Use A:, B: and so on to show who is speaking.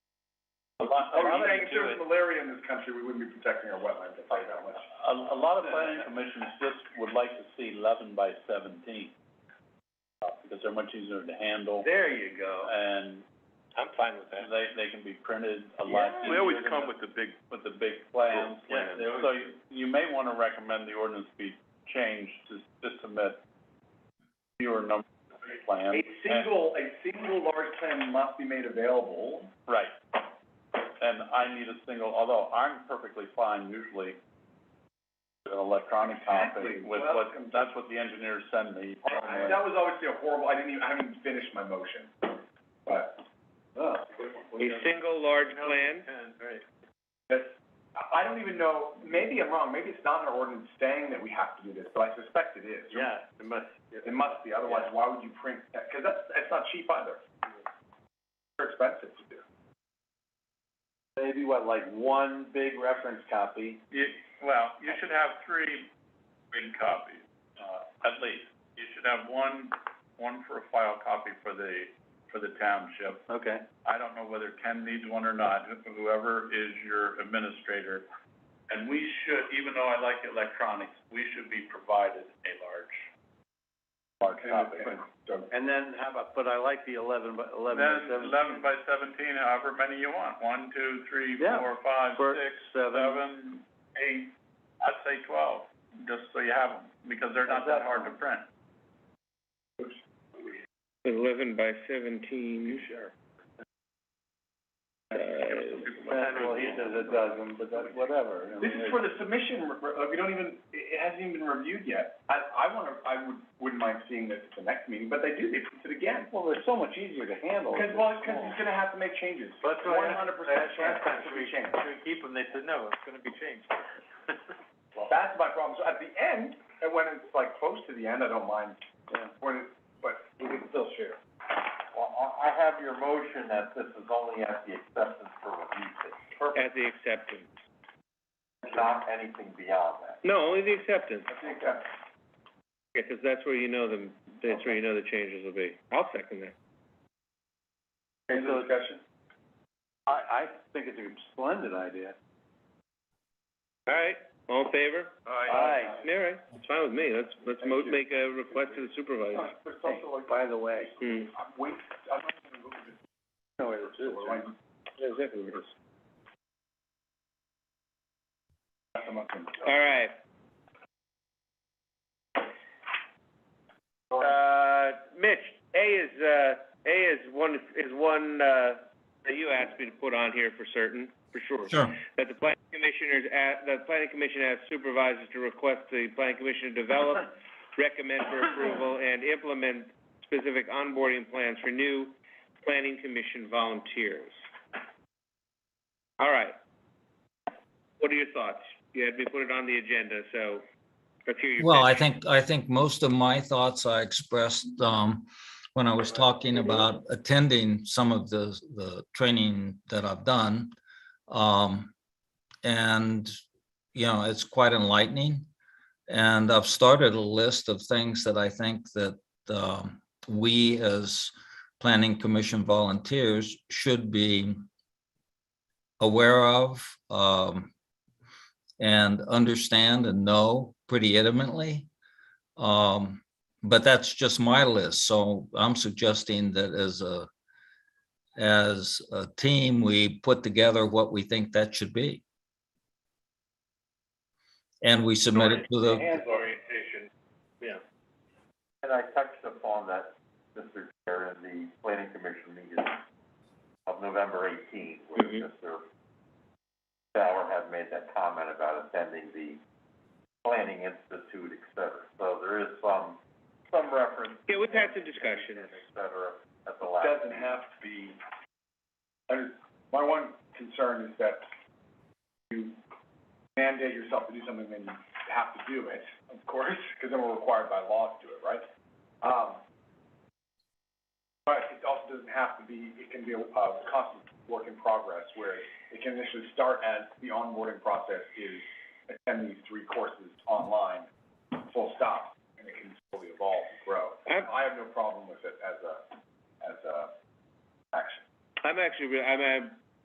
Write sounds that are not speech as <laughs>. A: lot, a
B: I'm
A: lot of
B: saying if there
A: do
B: was
A: it.
B: malaria in this country, we wouldn't be protecting our wetlands, I'll tell you that much.
A: A, a lot of planning commissions just would like to see eleven by seventeen, uh, because they're much easier to handle,
C: There you go.
A: and
C: I'm fine with
A: they, they can be printed a lot easier.
D: We always
A: than
D: come
A: the-
D: with the big,
A: With the big plans,
D: Cool, yeah.
A: There- so you, you may wanna recommend the ordinance be changed to, to submit fewer number of plans.
B: A
A: and-
B: single, a single large plan must be made available.
A: Right. And I need a single, although I'm perfectly fine usually with an electronic copy
B: Exactly.
A: with
B: Well,
A: what,
B: that's-
A: that's what the engineers send me.
B: I- That was obviously a horrible, I didn't even, I haven't finished my motion, but.
C: A single large plan,
B: That's, I I don't even know, maybe I'm wrong, maybe it's not in our ordinance saying that we have to do this, but I suspect it is.
D: yeah, it must, yeah.
B: It must be, otherwise why would you print that? Because that's, that's not cheap either. They're expensive to do.
A: Maybe what, like one big reference copy?
D: You, well, you should have three big copies, uh, at least. You should have one, one for a file copy for the, for the township,
A: Okay.
D: I don't know whether Ken needs one or not, wh- whoever is your administrator. And we should, even though I like electronics, we should be provided a large.
A: Large
B: And-
A: copy.
B: and- so-
C: and then how about, but I like the eleven by, eleven by
D: Then
C: seventeen.
D: eleven by seventeen, however many you want, one, two, three,
C: Yeah.
D: four, five,
C: For-
D: six,
C: seven.
D: seven, eight, I'd say twelve, just so you have them, because they're not that hard to print.
C: Eleven by seventeen. Sure.
A: And, well, he says a dozen, but that's whatever. I
B: This is
A: mean, it-
B: for the submission, re- re- uh, we don't even, it it hasn't even been reviewed yet. I, I wanna, I would, wouldn't mind seeing this at the next meeting, but they do, they print it again.
A: Well, they're so much easier to handle.
B: Because, well, because he's gonna have to make changes.
C: That's what I-
B: One hundred percent chance it's gonna be changed.
C: Should we keep them? They said, no, it's gonna be
B: <laughs>
C: changed.
B: That's my problem. So at the end, and when it's like close to the end, I don't mind.
A: Yeah.
B: When it, but we can still share.
A: Well, I, I have your motion that this is only at the acceptance for review stage,
C: At the acceptance.
A: not anything beyond that.
C: No, only the acceptance.
B: I think that's,
C: Yeah, 'cause that's where you know the, that's where you know the changes will be. I'll second that.
B: any
A: So-
B: discussion?
A: I, I think it's a splendid idea.
C: All right, all in favor?
A: Aye.
C: All right, it's fine with me. Let's, let's mo-
B: Thank you.
C: make a request to the supervisor.
B: But it's also like,
A: By the way.
C: Hmm.
B: I'm wait, I'm not gonna look at this.
A: No, it is.
B: Or like,
C: Yeah, Exactly what it is.
B: I'm not gonna-
C: All right. Uh, Mitch, A is, uh, A is one, is one, uh, that you asked me to put on here for certain, for sure.
E: Sure.
C: That the planning commissioners, a- the planning commission asks supervisors to request the planning commission to develop, recommend for approval, and implement specific onboarding plans for new planning commission volunteers. All right. What are your thoughts? You had me put it on the agenda, so let's hear your
E: Well, I
C: pitch.
E: think, I think most of my thoughts I expressed um, when I was talking about attending some of the, the training that I've done. Um, And, you know, it's quite enlightening. And I've started a list of things that I think that um, we as planning commission volunteers should be aware of, um, and understand and know pretty intimately. Um, but that's just my list, so I'm suggesting that as a as a team, we put together what we think that should be. And we submit it to the,
C: orientation.
A: And I touched upon that, Mr. Chair, in the planning commission meeting of November eighteenth, where
C: Mhm.
A: Mr. Sauer had made that comment about attending the Planning Institute, et cetera. So there is some, some reference,
C: Yeah, we've had some discussions.
A: et cetera, at the
B: It
A: last.
B: doesn't have to be, I just, my one concern is that you mandate yourself to do something, then you have to do it, of course, because then we're required by law to do it, right? Um, but it also doesn't have to be, it can be a, a constant work in progress, where it can initially start as the onboarding process is attend these three courses online, full stop, and it can slowly evolve and grow.
C: I'm,
B: I have no problem with it as a, as a action.
C: I'm actually, re- I'm, I'm